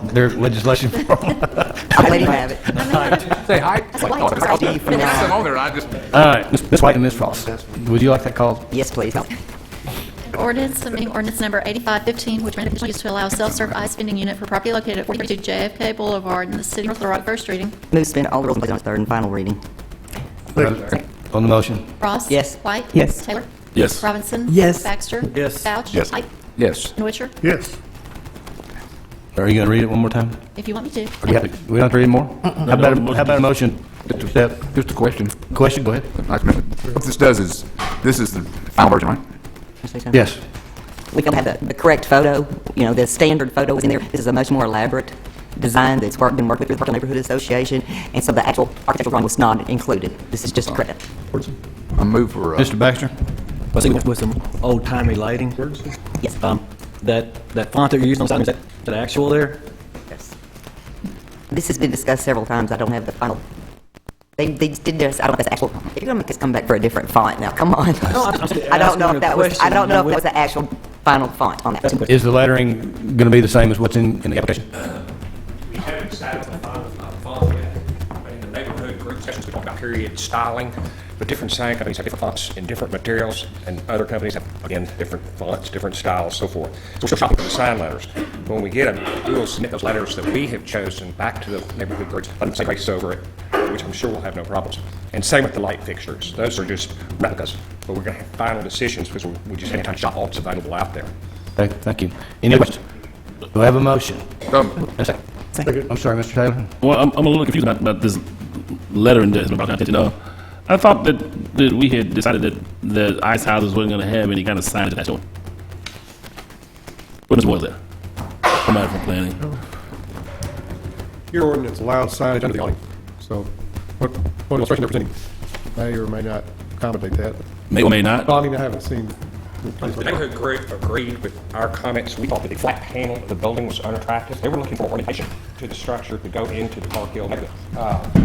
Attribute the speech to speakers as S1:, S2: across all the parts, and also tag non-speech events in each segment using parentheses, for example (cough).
S1: their legislation (laughs) for them.
S2: I'm waiting to have it.
S1: Say hi.
S2: ID for now.
S3: I'm on there, I just,
S1: All right, Ms. Ms. White and Ms. Ross, would you like that called?
S2: Yes, please.
S4: Ordinance submitting ordinance number 8515, which may conditional use to allow a self-serve ice vending unit for property located at 42 JFK Boulevard in the city of North Little Rock, first reading.
S2: Move spin all rules and place on its third and final reading.
S1: On the motion?
S4: Ross?
S2: Yes.
S4: White?
S2: Yes.
S4: Taylor?
S3: yes.
S4: Robinson?
S5: Yes.
S4: Baxter?
S5: Yes.
S4: Vouch?
S3: Yes.
S4: Height?
S3: Yes.
S4: And Witcher?
S5: Yes.
S1: Are you going to read it one more time?
S4: If you want me to.
S1: We don't have to read more? How about, a- how about a motion? to accept?
S3: Just a question.
S1: Question, go ahead.
S3: What this does is, this is the final version, right?
S1: Yes.
S2: We don't have the, the correct photo, you know, the standard photo is in there. This is a much more elaborate design that's worked, been worked with through the Parkland Neighborhood Association, and so the actual architectural drawing was not included. This is just a credit.
S3: I move for, uh,
S1: Mr. Baxter?
S6: With with some old-timey lighting.
S2: Yes.
S6: Um, That, that font that you're using on the sign, is that, is that actual there?
S2: Yes. This has been discussed several times. I don't have the final. They, they did this, I don't know if that's actual. If you're gonna make us come back for a different font now, come on. (laughs)
S6: I'm just
S2: I don't know if
S6: asking a
S2: that was, I
S6: question,
S2: don't
S6: you
S2: know if that
S6: know, with-
S2: was the actual final font on that.
S1: Is the lettering going to be the same as what's in, in the application?
S7: We haven't decided on the final uh, font yet, but in the neighborhood group sessions, we talk about period styling, but different sign companies have different fonts and different materials, and other companies have, again, different fonts, different styles, so forth. So we're still shopping for the sign letters. When we get them, we will submit those letters that we have chosen back to the neighborhood groups, let them say race over it, which I'm sure will have no problems. And same with the light fixtures, those are just replicas, but we're going to have final decisions because we we just haven't had shop all that's available out there.
S1: Thank, thank you. Any questions? Do I have a motion?
S3: um,
S1: A second. I'm sorry, Mr. Taylor?
S8: Well, I'm, I'm a little confused about, about this lettering that's been brought to our attention. Uh, I thought that, that we had decided that the ice houses weren't going to have any kind of signage attached to them. What is was that? I'm out from planning.
S9: Your ordinance allows signage under the awning, so what, what illustration they're presenting may or may not accommodate that.
S8: May or may not.
S9: Well, I mean, I haven't seen.
S7: The neighborhood group agreed with our comments. We thought that the flat panel of the building was unattractive. They were looking for ornamentation to the structure to go into the Park Hill neighborhood. Uh,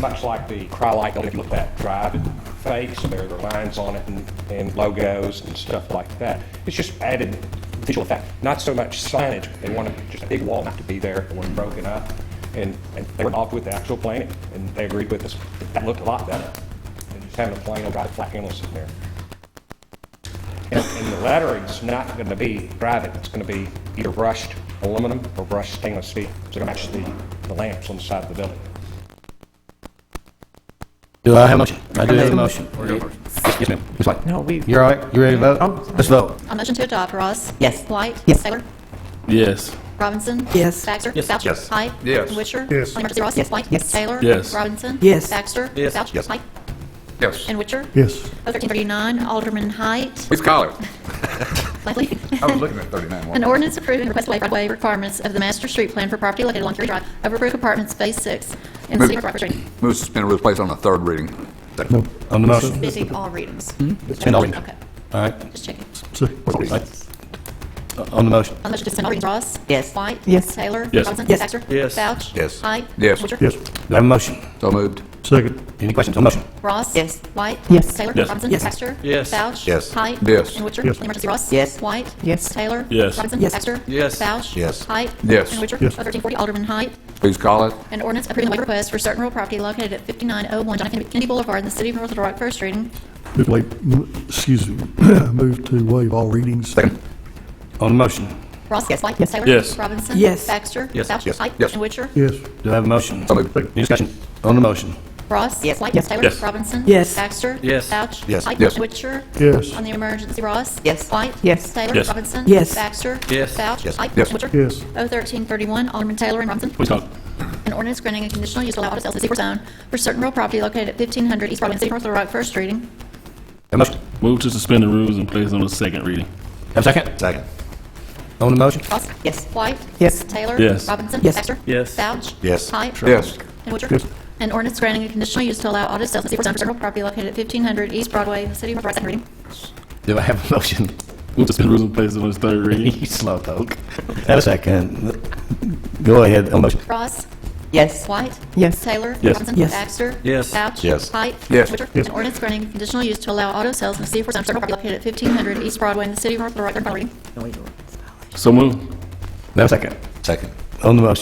S7: Much like the Cryolite building, if you look at that drive, it fades, there are lines on it and- and logos and stuff like that. It's just added visual effect, not so much signage. They wanted just a big wall not to be there, it wasn't broken up. And and they were involved with the actual planning, and they agreed with us. That looked a lot better than just having a plain old drive flat panel sitting there. And and the lettering's not going to be private, it's going to be either brushed aluminum or brushed stainless steel. It's going to match the, the lamps on the side of the building.
S1: Do I have a motion? I do have a motion. Yes, ma'am. Ms. White? No, we... Oh. You're all right? You ready to vote? Let's vote.
S4: On motion to adopt, Ross?
S2: Yes.
S4: White?
S2: Yes.
S4: Taylor?
S8: Yes.
S4: Robinson?
S5: Yes.
S4: Baxter?
S6: Yes.
S4: Vouch?
S3: Yes.
S4: Height?
S3: Yes.
S4: And Witcher?
S9: Yes.
S4: On emergency, Ross?
S2: Yes.
S4: White?
S5: Yes.
S4: Taylor?
S8: Yes.
S4: Robinson?
S5: Yes.
S4: Baxter?
S6: Yes.
S4: Vouch?
S3: Yes.
S4: Height?
S3: yes.
S4: And Witcher?
S9: Yes.
S4: 1339, Alderman Height.
S3: Please call it.
S4: Blakely.
S3: I was looking at 39
S4: An
S3: one.
S4: ordinance approving request waiver of way requirements of the master street plan for property located along Curie Drive, Overbrook Apartments, Phase 6, in the city of Rock River.
S3: Move to suspend rules, place on the third reading.
S1: On the motion?
S4: Busy all readings.
S1: Suspend all readings.
S4: Okay,
S1: All right.
S4: just checking.
S1: Uh, On the motion?
S4: On the motion to suspend all readings, Ross?
S2: Yes.
S4: White?
S5: Yes.
S4: Taylor?
S8: Yes.
S4: Robinson?
S5: Yes.
S4: Baxter?
S6: Yes.
S4: Vouch?
S3: Yes.
S4: Height?
S3: Yes.
S4: Witcher?
S9: Yes.
S1: Do I have a motion?
S3: So moved.
S9: Second.
S1: Any questions on the motion?
S4: Ross?
S2: Yes.
S4: White?
S5: Yes.
S4: Taylor?
S8: Yes.
S4: Robinson?
S5: Yes.
S4: Baxter?
S6: Yes.
S4: Vouch?
S3: Yes.
S4: Height?
S3: Yes.
S4: And Witcher?
S9: Yes.
S4: The emergency, Ross?
S2: Yes.
S4: White?
S5: Yes.
S4: Taylor?
S8: Yes.
S4: Robinson?
S5: Yes.
S4: Baxter?
S6: Yes.
S4: Vouch?
S3: Yes.
S4: Height?
S3: Yes.
S4: And Witcher?
S9: Yes.
S4: 1340, Alderman Height.
S3: Please call it.
S4: An ordinance approving the waiver request for certain real property located at 5901 John F. Kennedy Boulevard in the city of North Little Rock, first reading.
S10: Move to waive- m- excuse me, (coughs) move to waive all readings.
S1: On the motion?
S4: Ross?
S2: Yes.
S4: White? Taylor?
S8: Yes.
S4: Robinson?
S5: Yes.
S4: Baxter?
S6: Yes.
S4: Vouch?
S3: Yes.
S4: Height?
S3: Yes.
S4: And Witcher?
S10: Yes,
S1: Do I have a motion?
S3: So moved.
S1: Any discussion? On the motion?
S4: Ross?
S2: Yes.
S4: White?
S5: Yes.
S4: Taylor?
S8: Yes.
S4: Robinson?
S5: Yes.
S4: Baxter?
S6: Yes.
S4: Vouch?
S3: Yes.
S4: Height?
S3: Yes.
S4: Witcher?
S10: yes,
S4: On the emergency, Ross?
S2: Yes.
S4: White?
S5: Yes.
S4: Taylor?
S8: Yes.
S4: Robinson?
S5: Yes.
S4: Baxter?
S6: Yes.
S4: Vouch?
S3: Yes.
S4: Height?
S3: Yes.
S4: Witcher?
S10: yes,
S4: O thirteen thirty-one, Alderman Taylor and Robinson.
S8: Please call.
S4: An ordinance granting a conditional use to allow auto sales in secret zone for certain real property located at fifteen hundred East Broadway, in the City of North Little Rock, first reading.
S1: Have a motion?
S8: Move to suspend the rules and place on the second reading.
S1: Have a second?
S3: Second.
S1: On the motion?
S4: Ross?
S2: Yes.
S4: White?
S5: Yes.
S4: Taylor?
S8: Yes.
S4: Robinson?
S5: Yes.
S4: Baxter?
S6: Yes.
S4: Vouch?
S3: Yes.
S4: Height?
S3: Yes.
S4: And Witcher? An ordinance granting a conditional use to allow auto sales in secret zone for certain real property located at fifteen hundred East Broadway, in the City of North Little Rock, second reading.
S1: Do I have a motion?
S8: Move to suspend the rules and place on the third
S1: You
S8: reading.
S1: slowpoke. Have a second. Go ahead, on the motion.
S4: Ross?
S2: Yes.
S4: White?
S5: Yes.
S4: Taylor?
S8: Yes.
S4: Robinson?
S5: Yes.
S4: Baxter?
S6: Yes.
S4: Vouch?
S3: Yes.
S4: Height?
S3: Yes.
S4: Witcher?
S10: Yes.
S4: An ordinance granting conditional use to allow auto sales in the city of Forsyth, certain property located at fifteen hundred East Broadway in the city of North Little Rock, third reading.
S8: So move.
S1: Have a second.
S3: Second.
S1: On the motion.